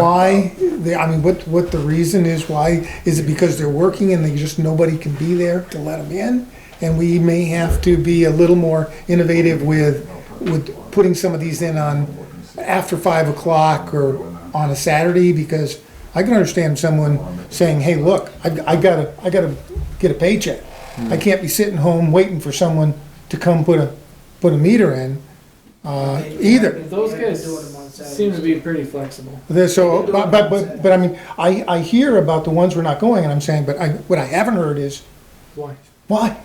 why, they- I mean, what, what the reason is, why, is it because they're working and they just, nobody can be there to let them in? And we may have to be a little more innovative with, with putting some of these in on, after five o'clock or on a Saturday, because I can understand someone saying, hey, look, I, I gotta, I gotta get a paycheck. I can't be sitting home waiting for someone to come put a, put a meter in, uh, either. Those Yeah, guys do it on Saturdays. seem to be pretty flexible. There's so, but, but, but, but I mean, I, I hear about the ones we're not going, and I'm saying, but I, what I haven't heard is, Why? why?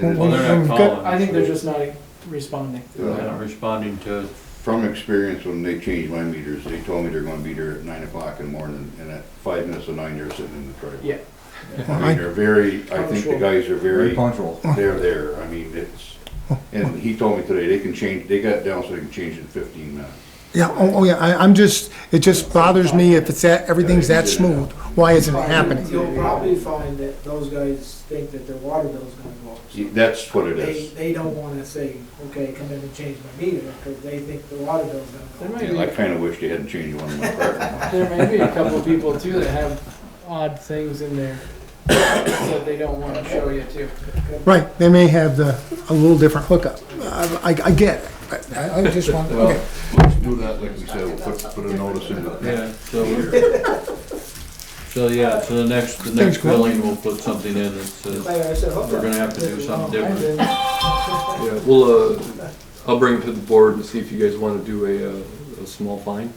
Well, they're We've not got- calling. I think they're just not responding. They're not responding to it. From experience, when they changed my meters, they told me they're gonna be there at nine o'clock in the morning, and at five minutes to nine, they're sitting in the driveway. Yeah. I mean, they're very, I think the guys are very, punctual. they're there, I mean, it's, and he told me today, they can change, they got it down so they can change it in fifteen minutes. Yeah, oh, oh, yeah, I, I'm just, it just bothers me if it's that, everything's that smooth, why isn't it happening? You'll probably find that those guys think that their water bill's gonna go up. See, That's what it They, is. they don't wanna say, okay, come in and change my meter, because they think the water bill's gonna There go up. might And I be, kinda wish they hadn't changed one of my apartment ones. there may be a couple of people too that have odd things in there that they don't wanna show you too. Right, they may have the, a little different hookup, I, I- I get it, but I, I just want, Well, okay. Let's do that, like we said, we'll put, put a notice in the. Yeah, so, we're- so yeah, so the next, the Thanks, next Glenn. billing, we'll put something in that says, Like I said, hook We're gonna up. have to do something Oh, I did. different. Yeah, we'll, uh, I'll bring it to the board and see if you guys wanna do a, uh, a small fine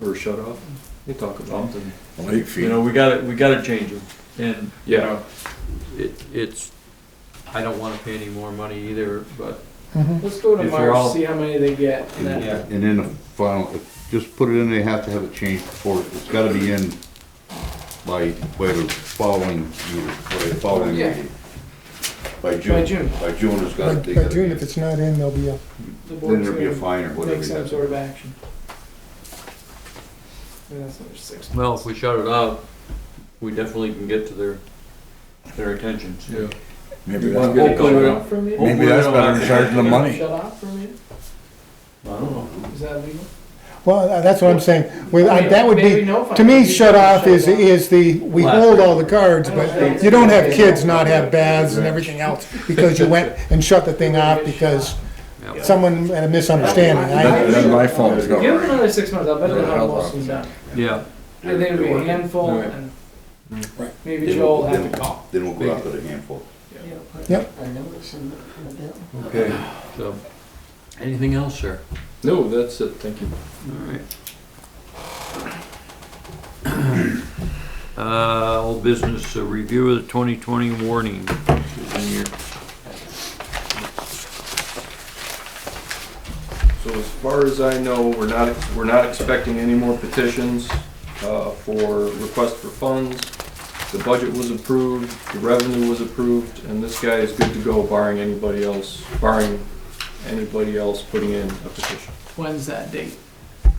or a shut off. We'll talk about it. something. Late You know, we gotta, we gotta change them. And, you Yeah. know, it, it's, I don't wanna pay any more money either, but Mhm. Let's go to If they're March, all- see how many they get. and then- Yeah. And then the final, just put it in, they have to have it changed before, it's gotta be in by, by the following, year, by the following Yeah. meeting. By By June, June, by June it's By gotta, they by June, if gotta, it's not in, there'll be a, the then board's there'll be a gonna fine or whatever. take you some have sort to- of action. I mean, that's another six Well, months. if we shut it out, we definitely can get to their, their attention. Yeah. Maybe Well, that's, get it Shut going. off from you? Hopefully maybe that's we don't better have than to- charging them money. Shut off from you? I don't know. Is that legal? well, that's what I'm saying, with, I- that would Maybe be, no to fine. me, Maybe shut off is, shut off. is the, we hold all the cards, but you don't have kids not have baths and everything else because you went and shut the thing off because someone had a misunderstanding. I, then my phone is Give them going. another six months, I'll bet they'll Yeah, have I'll most lock of them done. Yeah, I think it'll be a They're- they're handful Alright. and Right. maybe Then Joe will we'll- have to call. Then we'll go out to the handful. okay, so, anything else, sir? No, that's it, thank you. Alright. Uh, old business, a review of the twenty twenty warning, which is in your, So as far as I know, we're not, we're not expecting any more petitions uh, for request for funds. The budget was approved, the revenue was approved, and this guy is good to go barring anybody else, barring anybody else putting in a petition. When's that date?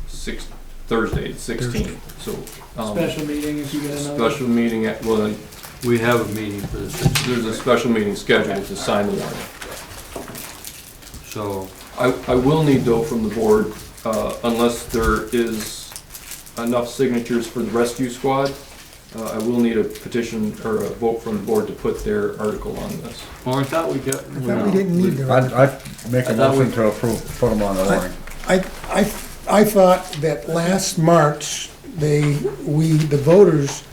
Six, Thursday, sixteen, so. um, Special meeting if you get another. Special meeting, at- well, we have a meeting for this, There's a special meeting scheduled to sign the warrant. so, I, I will need though from the board, uh, unless there is enough signatures for the rescue squad, uh, I will need a petition or a vote from the board to put their article on this. well, Oh, I thought we got. I thought we didn't need to. I'd, I'd make a I thought we- motion to approve, put them on the warrant. I, I, I thought that last March, they, we, the voters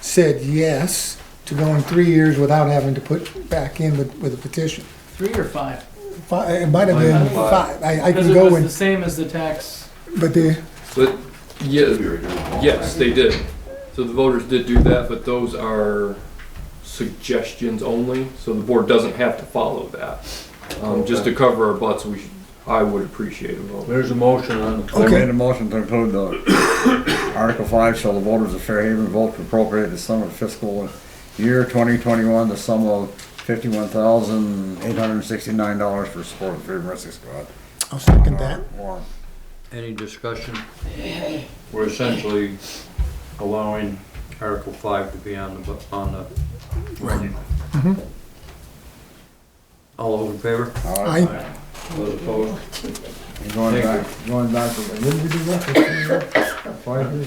said yes to going three years without having to put back in with, with a petition. Three or five? Five, it might have been five. I, I Because can it go was the and, same as the tax. but the, But, yeah, We were doing all yes, that. they did. So the voters did do that, but those are suggestions only, so the board doesn't have to follow that. Um, just to cover our butts, we should, I would appreciate a vote. There's a motion on, I made a motion to include the Article five, shall the voters of Fairhaven vote to appropriate the sum of fiscal year twenty twenty-one, the sum of fifty-one thousand, eight hundred and sixty-nine dollars for support of the Fairhaven Rescue Squad. Uh, I'll second that. Warrant. any discussion? We're essentially allowing Article five to be on the, bu- on the warning. All those in favor? All right. I, Those opposed? And going Thank back, going back, to- when did we do that? Five years